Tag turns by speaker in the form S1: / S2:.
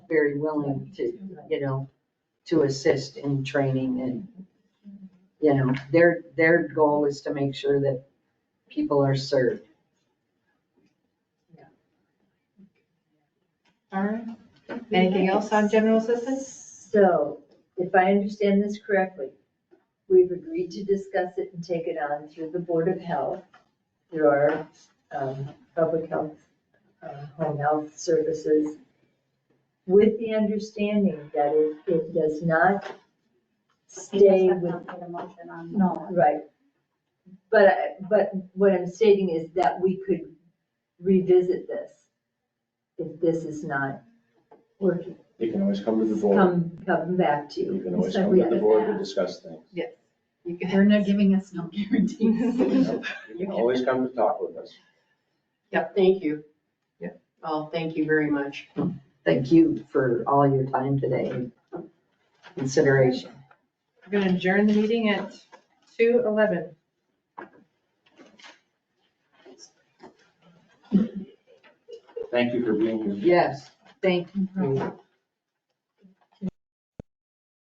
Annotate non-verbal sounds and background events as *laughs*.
S1: very willing to, you know, to assist in training and, you know, their, their goal is to make sure that people are served.
S2: All right. Anything else on general assistance?
S3: So, if I understand this correctly, we've agreed to discuss it and take it on through the Board of Health, through our um, public health, uh, home health services, with the understanding that it, it does not stay with,
S4: No.
S3: right. But, I- but what I'm stating is that we could revisit this if this is not working.
S5: You can always come to the board.
S3: Come, come back to you.
S5: You can always
S3: So
S5: come
S3: we
S5: to the
S3: have
S5: board
S3: that.
S5: to discuss
S3: *laughs*
S5: things.
S2: You can-
S4: They're not giving us no guarantees.
S5: You know, you can always come to talk with us.
S2: Yep, thank you. Yep. Oh, thank you very much.
S1: Thank you for all your time today and consideration.
S2: We're gonna adjourn the meeting at two eleven.
S5: Thank you for being here.
S1: Yes, thank you.